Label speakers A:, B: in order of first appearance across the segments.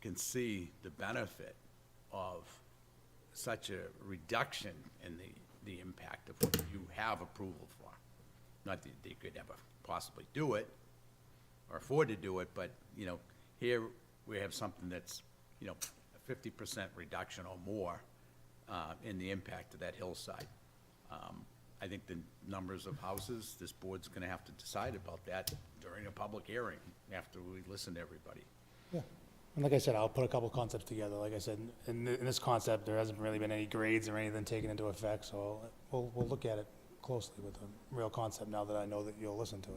A: can see the benefit of such a reduction in the, the impact of what you have approval for. Not that they could ever possibly do it or afford to do it, but, you know, here we have something that's, you know, a fifty percent reduction or more uh, in the impact of that hillside. Um, I think the numbers of houses, this board's gonna have to decide about that during a public hearing, after we listen to everybody.
B: Yeah, And like I said, I'll put a couple concepts together. Like I said, in, th- in this concept, there hasn't really been any grades or anything taken into effect, so we'll, we'll look at it closely with a real concept now that I know that you'll listen to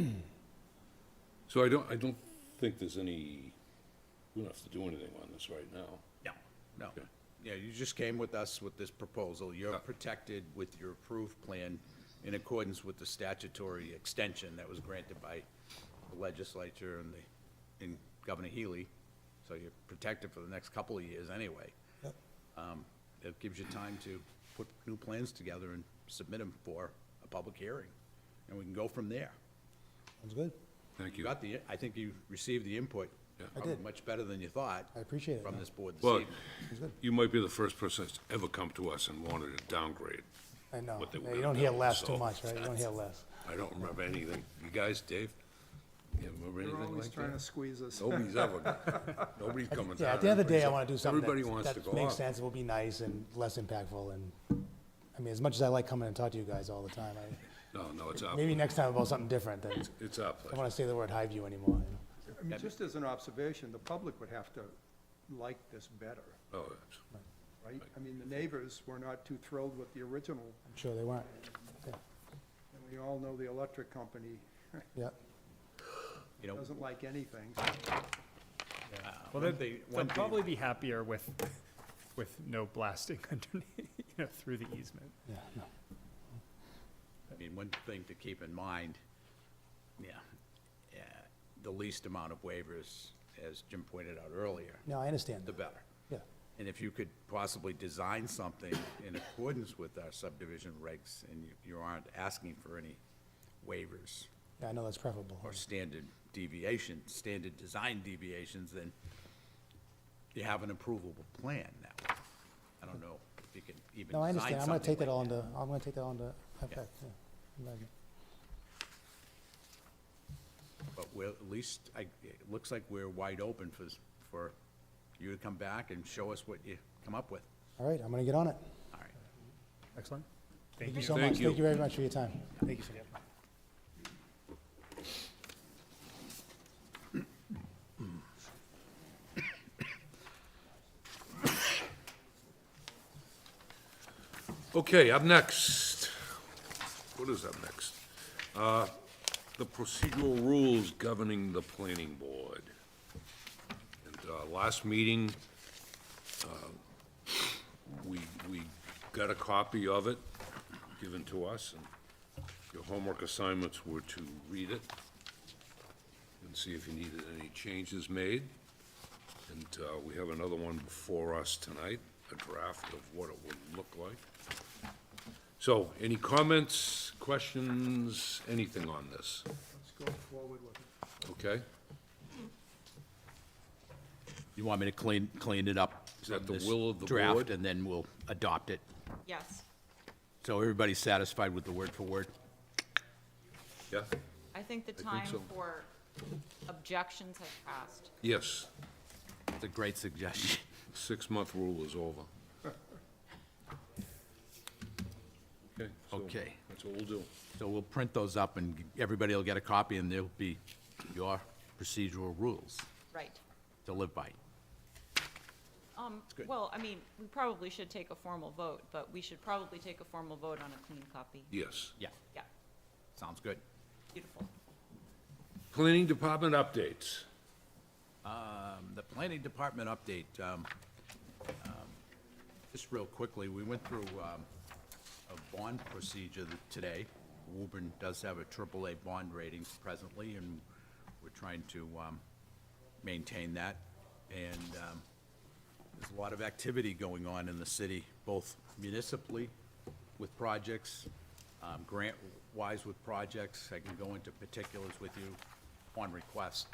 B: it.
C: So I don't, I don't think there's any, we don't have to do anything on this right now.
A: No, no.
C: Okay.
A: Yeah, you just came with us with this proposal. You're protected with your approved plan in accordance with the statutory extension that was granted by the legislature and the, and Governor Healy. So you're protected for the next couple of years anyway.
B: Yep.
A: Um, It gives you time to put new plans together and submit them for a public hearing, and we can go from there.
B: Sounds good.
C: Thank
A: You
C: you.
A: got the, I think you received the input.
C: Yeah. I
A: probably
B: did.
A: Much better than you thought.
B: I appreciate it,
A: From
B: no.
A: this board this
C: But
A: evening.
C: you might be the first person that's ever come to us and wanted to downgrade.
B: I know.
C: What they
B: Yeah,
C: were
B: You don't hear
C: gonna do,
B: less too
C: so-
B: much, right? You don't hear less.
C: I don't remember anything. You guys, Dave? You remember
D: They're
C: anything
D: always
C: like
D: trying to
C: that?
D: squeeze us.
C: Nobody's ever, nobody's coming down.
B: Yeah, at the end of the day, I
C: Everybody's-
B: want to do something
C: Everybody wants
B: that,
C: to
B: that
C: go
B: makes
C: up.
B: sense, will be nice and less impactful, and, I mean, as much as I like coming and talk to you guys all the time, I,
C: No, no, it's our,
B: maybe next time about something different, than, I
C: it's our
B: don't
C: pleasure.
B: want to say the word Highview anymore, you know?
D: I mean, just as an observation, the public would have to like this better,
C: Oh, it's-
D: right? I mean, the neighbors were not too thrilled with the original,
B: I'm sure they weren't.
D: and we all know the electric company
B: Yeah,
A: You know,
D: doesn't like anything.
E: Well,
A: One thing-
E: they'd, they'd
A: one thing-
E: probably be happier with, with no blasting underneath, you know, through the easement.
B: yeah, no.
A: I mean, one thing to keep in mind, yeah, yeah, the least amount of waivers, as Jim pointed out earlier,
B: No, I understand.
A: the better.
B: Yeah,
A: And if you could possibly design something in accordance with our subdivision regs, and you- you aren't asking for any waivers
B: yeah, I know that's preferable.
A: or standard deviation, standard design deviations, then you have an approvable plan now. I don't know if you can even
B: No,
A: design
B: I understand. I'm gonna
A: something
B: take that
A: like
B: all into, I'm gonna take that all into effect, yeah. Imagine.
A: But we're, at least, I, it looks like we're wide open for, s- for you to come back and show us what you come up with.
B: All right, I'm gonna get on it.
A: All right.
E: Excellent.
B: Thank you so
C: Thank
B: much.
C: you.
B: Thank you very much for your time.
E: Thank you for that.
C: Okay, up next. What is up next? Uh, The procedural rules governing the planning board. And uh, last meeting, uh, we, we got a copy of it given to us, and your homework assignments were to read it and see if you needed any changes made. And uh, we have another one before us tonight, a draft of what it would look like. So, any comments, questions, anything on this?
D: Let's go forward with it.
C: Okay?
A: You want me to clean, clean it up?
C: Is that
A: from
C: the
A: this
C: will of the
A: draft,
C: board?
A: And then we'll adopt it.
F: Yes,
A: So everybody's satisfied with the word for word?
C: Yeah?
F: I think the
C: think
F: time
C: so.
F: for objections has passed.
C: Yes,
A: It's a great suggestion.
C: six-month rule is over. Okay? so
A: Okay.
C: That's what we'll do.
A: So we'll print those up and everybody will get a copy and there'll be your procedural rules
F: Right.
A: to live by.
F: Um,
A: good.
F: well, I mean, we probably should take a formal vote, but we should probably take a formal vote on a clean copy.
C: Yes.
A: Yeah,
F: Yeah,
A: sounds good.
F: beautiful.
C: Planning Department updates.
A: Um, The planning department update, um, um, just real quickly, we went through um, a bond procedure th- today. Woburn does have a AAA bond rating presently, and we're trying to um, maintain that. And um, there's a lot of activity going on in the city, both municipally with projects, um, grant-wise with projects. I can go into particulars with you on request.